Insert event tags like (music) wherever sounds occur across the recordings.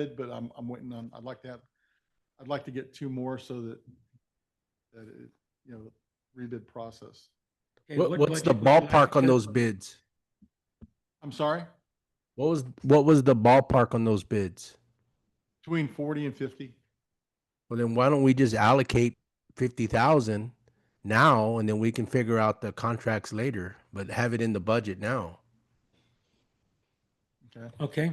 bid, but I'm, I'm waiting on, I'd like to have, I'd like to get two more so that, that it, you know, rebid process. Okay, What, what what's the budget would you like ballpark on to- those bids? I'm sorry, What was, what was the ballpark on those bids? between forty and fifty. Well, then why don't we just allocate fifty thousand now and then we can figure out the contracts later, but have it in the budget now. Okay. Okay,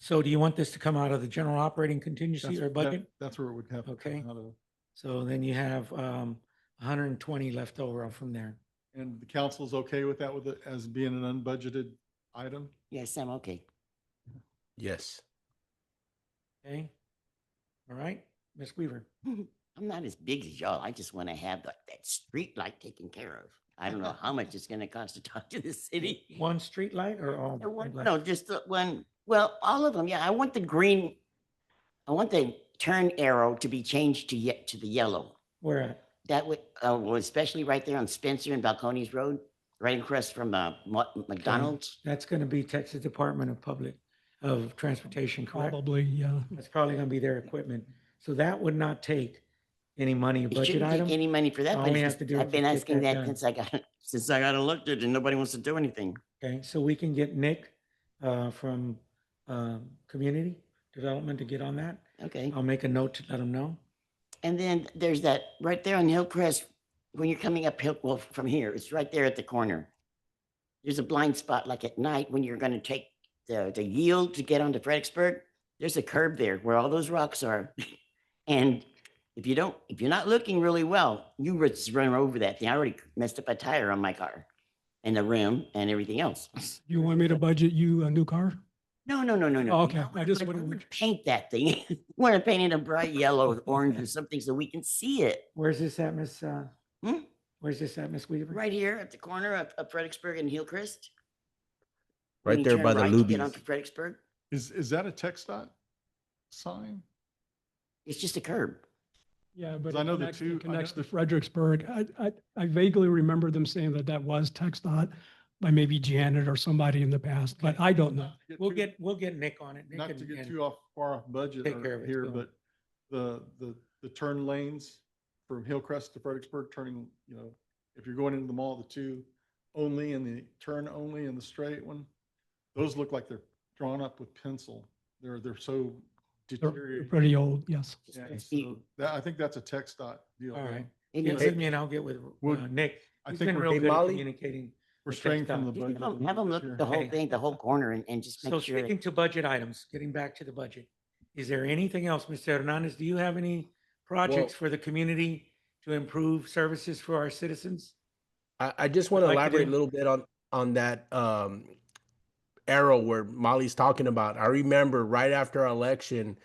so do you want this to come out of the general operating contingency That's- or that- budget? That's where it would have. to Okay. come out of. So then you have um, 120 left over from there. And the council's okay with that with it as being an unbudgeted item? Yes, I'm okay. Yes. Okay? All right, Ms. Weaver? I'm not as big as y'all. I just want to have like that street light taken care of. I don't (laughs) know how much it's going to cost to talk to the city. (laughs) One street light or all? The one- street lights? No, just the one, well, all of them. Yeah, I want the green. I want the turn arrow to be changed to yet to the yellow. Where at? That would, uh, well, especially right there on Spencer and Balcones Road, right across from, uh, Mo- McDonald's. That's going to be Texas Department of Public, of Transportation, correct? Probably, yeah. That's probably going to be their equipment. So that would not take any money, It budget shouldn't item? take any money for that, All but we it's have to just- do I've is been just get asking that done. that since I got, (laughs) since I got elected and nobody wants to do anything. Okay, so we can get Nick uh, from um, Community Development to get on that. Okay. I'll make a note to let him know. And then there's that right there on Hillcrest, when you're coming up Hill, well, from here, it's right there at the corner. There's a blind spot like at night when you're gonna take the, the yield to get onto Fredericksburg. There's a curb there where all those rocks are. (laughs) And if you don't, if you're not looking really well, you would just run over that thing. I already messed up a tire on my car and the rim and everything else. (laughs) You want me to budget you a new car? No, no, no, no, no. Oh, okay. I just want wanted to to make- Paint that thing. (laughs) Want to paint it a bright yellow, or orange or something so we can see it. Where's this at, Miss? uh, Hmm? Where's this at, Miss Weaver? Right here at the corner of, of Fredericksburg and Hillcrest. Right when you there turn by the right to Get Lubies. onto Fredericksburg. Is, is that a text dot sign? It's just a curb. Yeah, but. I it know the connects- two- it I know Connects the- to Fredericksburg. I, I, I vaguely remember them saying that that was text dot by maybe Janet or somebody in the past, but I don't know. Not to We'll too- get, we'll get Nick on it. Nick Not and- to get and- too off, far off budget take care of or it, here, so. but the, the, the turn lanes from Hillcrest to Fredericksburg, turning, you know, if you're going into the mall, the two only and the turn only and the straight one, those look like they're drawn up with pencil. They're, they're so They're they're deteriorated. pretty old, yes. Just Yeah, a feet. so That, I think that's a text dot deal. All right. And You it's- send me and I'll get with We'll- uh, Nick. I He's think been we're, real good at Molly? communicating. we're text straying from dot. the just budget. Have a them, little have 'em bit look here. at the whole Hey. thing, the whole corner and, and just So make sure. speaking to budget items, getting back to the budget, is there anything else, Mr. Hernandez? Do you have any projects Well- for the community to improve services for our citizens? I, I just want to like to elaborate do. a little bit on, on that, um, arrow where Molly's talking about. I remember right after our election,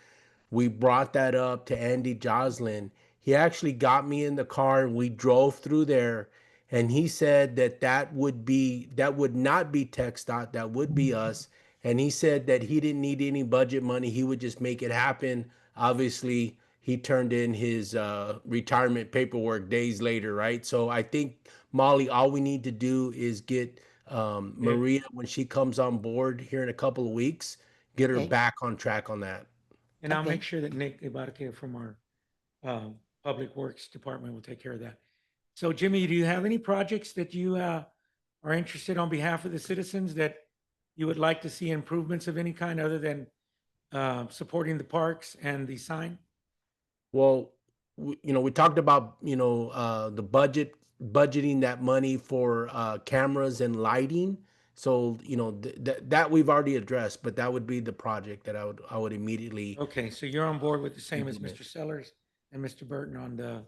we brought that up to Andy Joslin. He actually got me in the car and we drove through there and he said that that would be, that would not be Tech dot, that would be us. And he said that he didn't need any budget money. He would just make it happen. Obviously, he turned in his uh, retirement paperwork days later, right? So I think Molly, all we need to do is get um, Yeah. Maria when she comes on board here in a couple of weeks, get her Okay. back on track on that. And I'll Okay. make sure that Nick Ibarque from our um, Public Works Department will take care of that. So Jimmy, do you have any projects that you uh, are interested on behalf of the citizens that you would like to see improvements of any kind other than uh, supporting the parks and the sign? Well, we, you know, we talked about, you know, uh, the budget, budgeting that money for, uh, cameras and lighting. So, you know, th- that, that we've already addressed, but that would be the project that I would, I would immediately, Okay, so you're on board with the same as Mhm. Mr. Sellers and Mr. Burton on the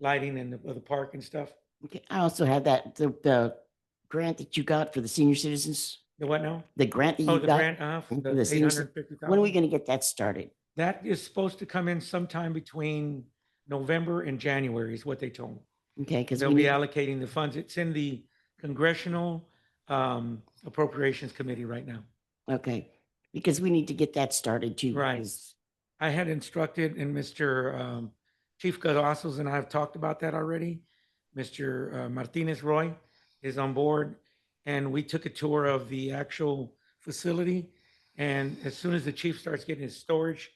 lighting and the, of the park and stuff? Okay, I also have that, the, the grant that you got for the senior citizens, The what now? the grant that Oh, you the got. grant, uh, for and the for the eight senior cit- hundred fifty thousand? When are we gonna get that started? That is supposed to come in sometime between November and January is what they told me. Okay, because They'll we be need, allocating the funds. It's in the Congressional um, Appropriations Committee right now. okay, because we need to get that started too. Right. because- I had instructed and Mr. um, Chief Gazossos and I have talked about that already. Mr. uh, Martinez Roy is on board and we took a tour of the actual facility. And as soon as the chief starts getting his storage